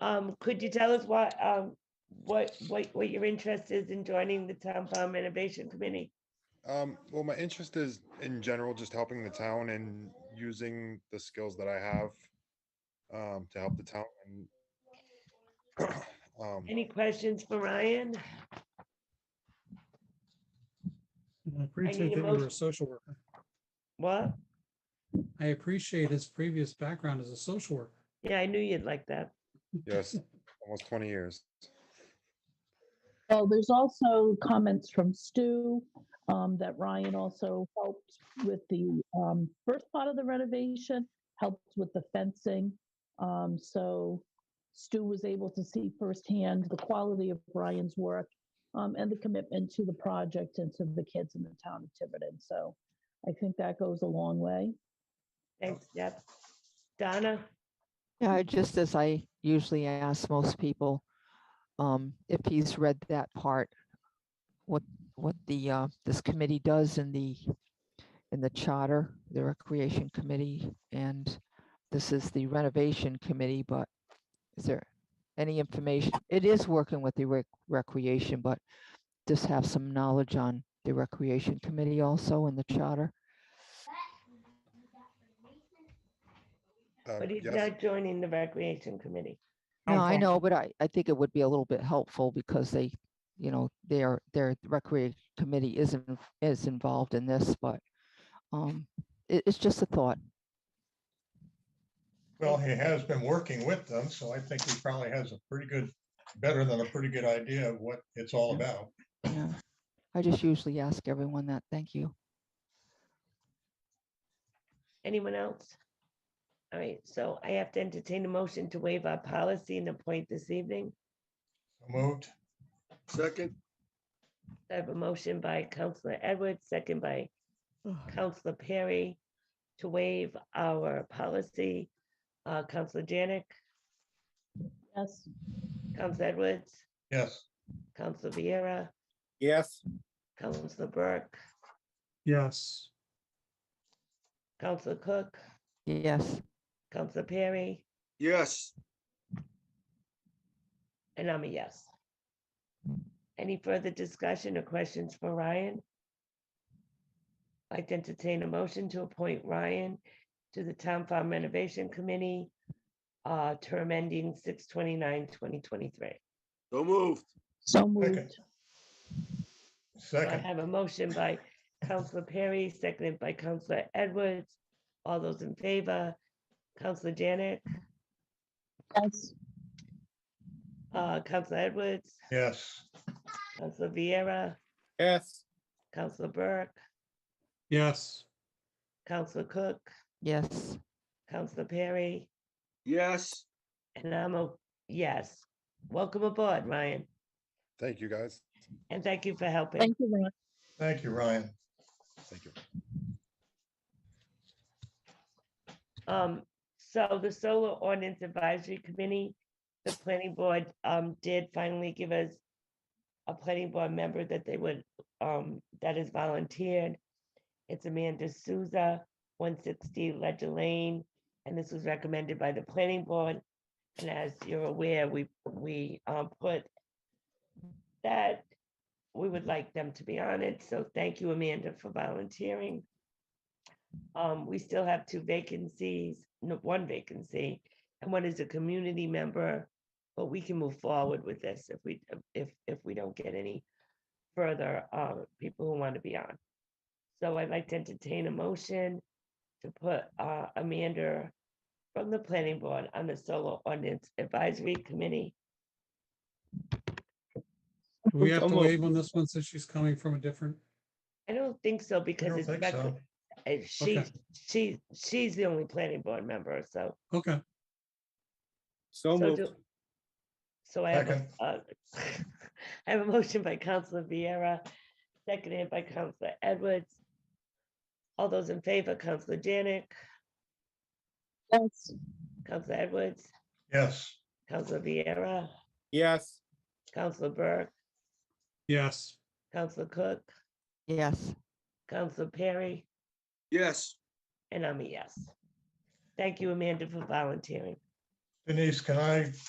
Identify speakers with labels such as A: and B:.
A: Um, could you tell us what, um, what, what, what your interest is in joining the Town Farm Renovation Committee?
B: Um, well, my interest is in general, just helping the town and using the skills that I have um, to help the town and um,
A: Any questions for Ryan?
C: I appreciate
A: need a
C: that you were
A: motion.
C: a social worker.
A: What?
C: I appreciate his previous background as a social worker.
A: Yeah, I knew you'd like that.
B: yes, almost 20 years.
D: Well, there's also comments from Stu um, that Ryan also helped with the um, first part of the renovation, helped with the fencing. Um, so Stu was able to see firsthand the quality of Ryan's work um, and the commitment to the project and to the kids in the town of Tiverton. So I think that goes a long way.
A: Thanks, yep. Donna,
E: Yeah, just as I usually ask most people, um, if he's read that part, what, what the, uh, this committee does in the, in the charter, the recreation committee, and this is the renovation committee, but is there any information? It is working with the rec- recreation, but just have some knowledge on the recreation committee also in the charter.
B: Um,
A: but he's
B: Uh, yes,
A: not joining the Recreation Committee.
E: No, I
C: Okay.
E: know, but I, I think it would be a little bit helpful because they, you know, their, their recreation committee isn't, is involved in this, but um, it, it's just a thought.
F: Well, he has been working with them, so I think he probably has a pretty good, better than a pretty good idea of what it's all about.
E: yeah. I just usually ask everyone that. Thank you.
A: Anyone else? All right, so I have to entertain a motion to waive our policy and appoint this evening.
F: Moved,
G: Second,
A: I have a motion by Counselor Edwards, second by Counselor Perry to waive our policy. Uh, Counselor Janik,
D: Yes.
A: Counselor Edwards,
F: yes.
A: Counselor Vieira,
G: yes.
A: Counselor Burke,
C: Yes.
A: Counselor Cook,
E: Yes,
A: Counselor Perry,
G: Yes.
A: and I'm a yes. Any further discussion or questions for Ryan? I'd entertain a motion to appoint Ryan to the Town Farm Renovation Committee, uh, term ending 2023.
G: So moved.
D: So moved.
A: So I
F: Second,
A: have a motion by Counselor Perry, seconded by Counselor Edwards. All those in favor, Counselor Janet,
D: Yes.
A: uh, Counselor Edwards,
F: yes.
A: Counselor Vieira,
G: Yes.
A: Counselor Burke,
C: Yes.
A: Counselor Cook,
E: yes,
A: Counselor Perry,
G: Yes.
A: and I'm a yes. Welcome aboard, Ryan,
B: Thank you, guys.
A: and thank you for helping.
D: Thank you, Ryan.
F: Thank you, Ryan.
B: Thank you.
A: Um, so the Solar Ordinance Advisory Committee, the planning board, um, did finally give us a planning board member that they would, um, that is volunteered. It's Amanda Souza, one sixty Ledger Lane, and this was recommended by the planning board. And as you're aware, we, we, um, put that we would like them to be on it, so thank you, Amanda, for volunteering. Um, we still have two vacancies, no, one vacancy, and one is a community member. But we can move forward with this if we, if, if we don't get any further, uh, people who want to be on. So I'd like to entertain a motion to put, uh, Amanda from the planning board on the solo ordinance advisory committee.
C: Do we have to
G: Almost.
C: waive on this one since she's coming from a different?
A: I don't think so
F: I
A: because
F: don't
A: it's,
F: think
A: rec-
F: so.
A: uh, she,
C: Okay.
A: she, she's the only planning board member, so.
C: Okay,
A: So
G: So moved.
A: do- So I have, a- uh, I have a motion by Counselor Vieira, seconded by Counselor Edwards. All those in favor, Counselor Janik,
D: Yes.
A: Counselor Edwards,
F: Yes.
A: Counselor Vieira,
G: Yes.
A: Counselor Burke,
C: yes.
A: Counselor Cook,
E: yes.
A: Counselor Perry,
G: Yes.
A: and I'm a yes. Thank you, Amanda, for volunteering.
F: Denise, can I